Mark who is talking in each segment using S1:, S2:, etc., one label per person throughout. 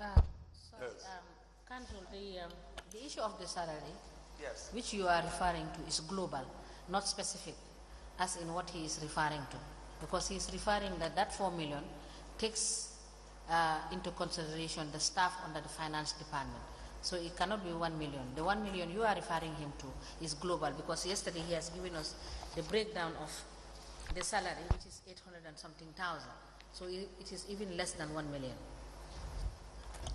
S1: Uh, um, The, um, the issue of the salary,
S2: Yes.
S1: which you are referring to, is global, not specific, as in what he is referring to. Because he is referring that that 4 million takes uh, into consideration the staff under the finance department. So it cannot be 1 million. The 1 million you are referring him to is global because yesterday he has given us the breakdown of the salary, which is 800 and something thousand. So it, it is even less than 1 million.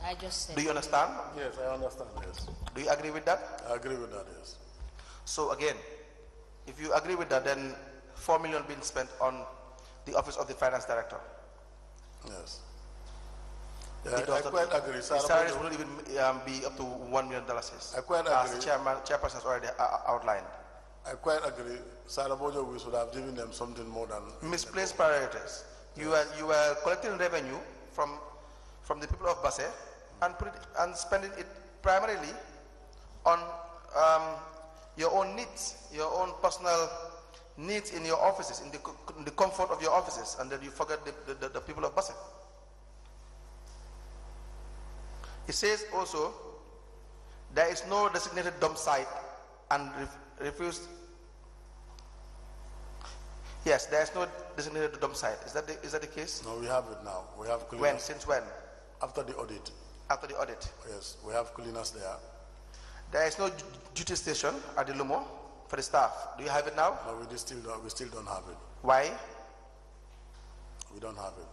S1: I just said.
S2: Do you understand?
S3: Yes, I understand, yes.
S2: Do you agree with that?
S3: I agree with that, yes.
S2: So again, if you agree with that, then four million being spent on the office of the finance director.
S3: Yes.
S2: It
S3: Yeah, I- I
S2: doesn't-
S3: quite agree.
S2: The salaries
S3: Sarabado.
S2: wouldn't even um, be up to one million dollars.
S3: I quite
S2: As
S3: agree.
S2: chairman, chairperson has already uh, outlined.
S3: I quite agree. Sarabojo, we should have given them something more than.
S2: Misplaced priorities. You are, you are collecting revenue from, from the people of Basse and put it, and spending it primarily on, um, your own needs, your own personal needs in your offices, in the, co- in the comfort of your offices, and then you forget the, the, the people of Basse. It says also, there is no designated dump site and ref- refused Yes, there is no designated dump site. Is that the, is that the case?
S3: No, we have it now. We have
S2: When?
S3: cleaners.
S2: Since when?
S3: After the audit,
S2: After the audit.
S3: yes, we have cleaners there.
S2: There is no du- duty station at the Lumo for the staff. Do you have it now?
S3: No, we just still, don't- we still don't have it.
S2: Why?
S3: We don't have it.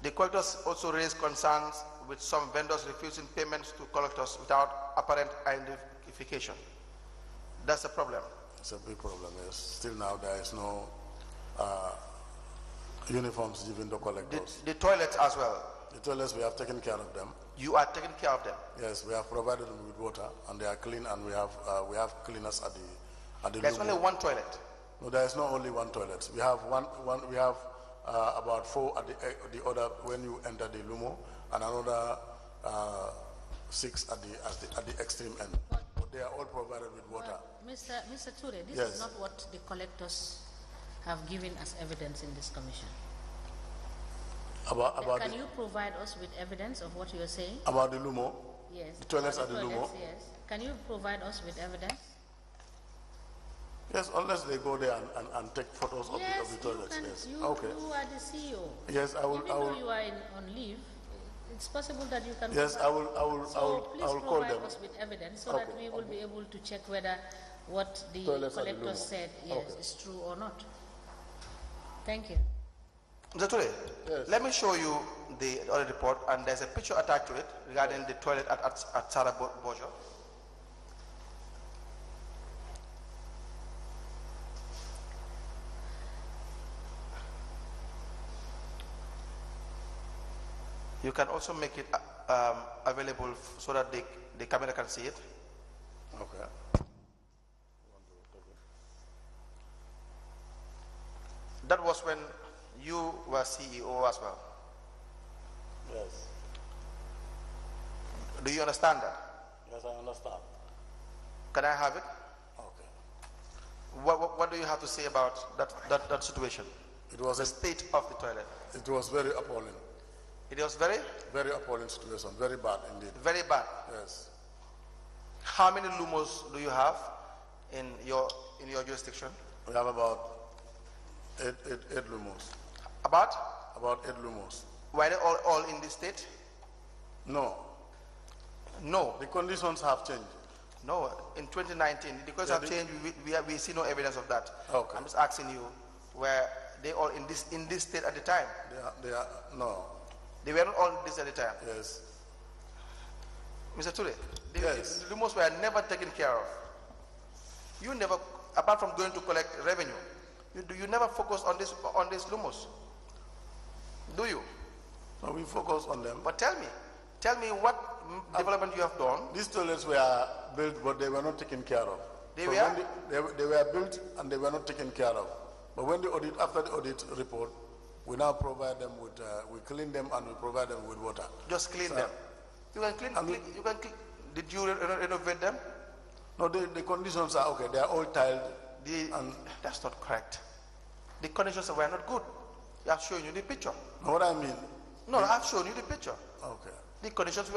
S2: The collectors also raised concerns with some vendors refusing payments to collectors without apparent identification. That's the problem.
S3: It's a big problem, yes. Still now, there is no, uh, uniforms given to
S2: The,
S3: collectors.
S2: the toilets as well.
S3: They told us we have taken care of them.
S2: You are taking care of them.
S3: Yes, we have provided them with water and they are clean and we have, uh, we have cleaners at the, at the.
S2: There's
S3: logo.
S2: only one toilet.
S3: No, there is not only one toilet. We have one, one, we have, uh, about four at the, eh, the other, when you enter the Lumo, and another, uh, six at the, at the, at the extreme end. But they are all provided with water.
S1: Mr. Mr. Ture, this
S3: Yes.
S1: is not what the collectors have given as evidence in this commission.
S3: About, about,
S1: Can
S3: the-
S1: you provide us with evidence of what you are saying?
S3: about the Lumo,
S1: Yes.
S3: The toilets
S1: about
S3: at the Lumo?
S1: toilets, Yes. Can you provide us with evidence?
S3: yes, unless they go there and, and, and take photos of the,
S1: Yes,
S3: of the
S1: you
S3: toilets,
S1: can-
S3: yes.
S1: You,
S3: Okay.
S1: you are the CEO.
S3: Yes, I will,
S1: Even
S3: I
S1: though
S3: will,
S1: you are in, on leave, it's possible that you can.
S3: yes, I
S1: provide-
S3: will, I will, I
S1: So
S3: will,
S1: please
S3: I will call them.
S1: provide us with evidence so that
S3: Okay,
S1: we will be able to check whether what the
S3: Toilets at the
S1: collector
S3: Lumo.
S1: said, yes,
S3: Okay.
S1: is true or not. Thank you.
S2: Mr. Ture,
S3: Yes.
S2: let me show you the audit report, and there's a picture attached to it regarding the toilet at, at, at Sarah Bo- Bojo. You can also make it uh, um, available f- so that the, the camera can see it.
S3: Okay.
S2: That was when you were CEO as well.
S3: Yes,
S2: Do you understand that?
S3: yes, I understand.
S2: Can I have it?
S3: Okay.
S2: What, what, what do you have to say about that, that, that situation?
S3: It was,
S2: The state of the toilet.
S3: a- it was very appalling,
S2: It was very,
S3: very appalling situation, very bad indeed.
S2: very bad.
S3: Yes,
S2: How many lumos do you have in your, in your jurisdiction?
S3: we have about eight, eight, eight lumos,
S2: About?
S3: about eight lumos.
S2: Were they all, all in the state?
S3: No,
S2: No,
S3: the conditions have changed.
S2: no. In 2019, the courts
S3: Yeah,
S2: have
S3: the-
S2: changed. We, we, we see no evidence of that.
S3: Okay.
S2: I'm just asking you, were they all in this, in this state at the time?
S3: They are, they are, no,
S2: They were not all in this at the time.
S3: yes,
S2: Mr. Ture, the,
S3: Yes.
S2: the lumos were never taken care of. You never, apart from going to collect revenue, you, do you never focus on this on these lumos? Do you?
S3: so we focus on them.
S2: But tell me, tell me what
S3: Um,
S2: mm, development you have done.
S3: These toilets were built, but they were not taken care of.
S2: They
S3: So
S2: were?
S3: when the- They, were- they were built and they were not taken care of. But when the audit, after the audit report, we now provide them with, uh, we clean them and we provide them with water.
S2: Just clean them. You can clean.
S3: I'm-
S2: clean you can clean. Did you re- re- renovate them?
S3: No, the, the conditions are, okay, they are all tiled,
S2: The,
S3: Um,
S2: that's not correct. The conditions were not good. I have shown you the picture.
S3: Know what I mean?
S2: No, I've shown you the picture.
S3: Okay.
S2: The conditions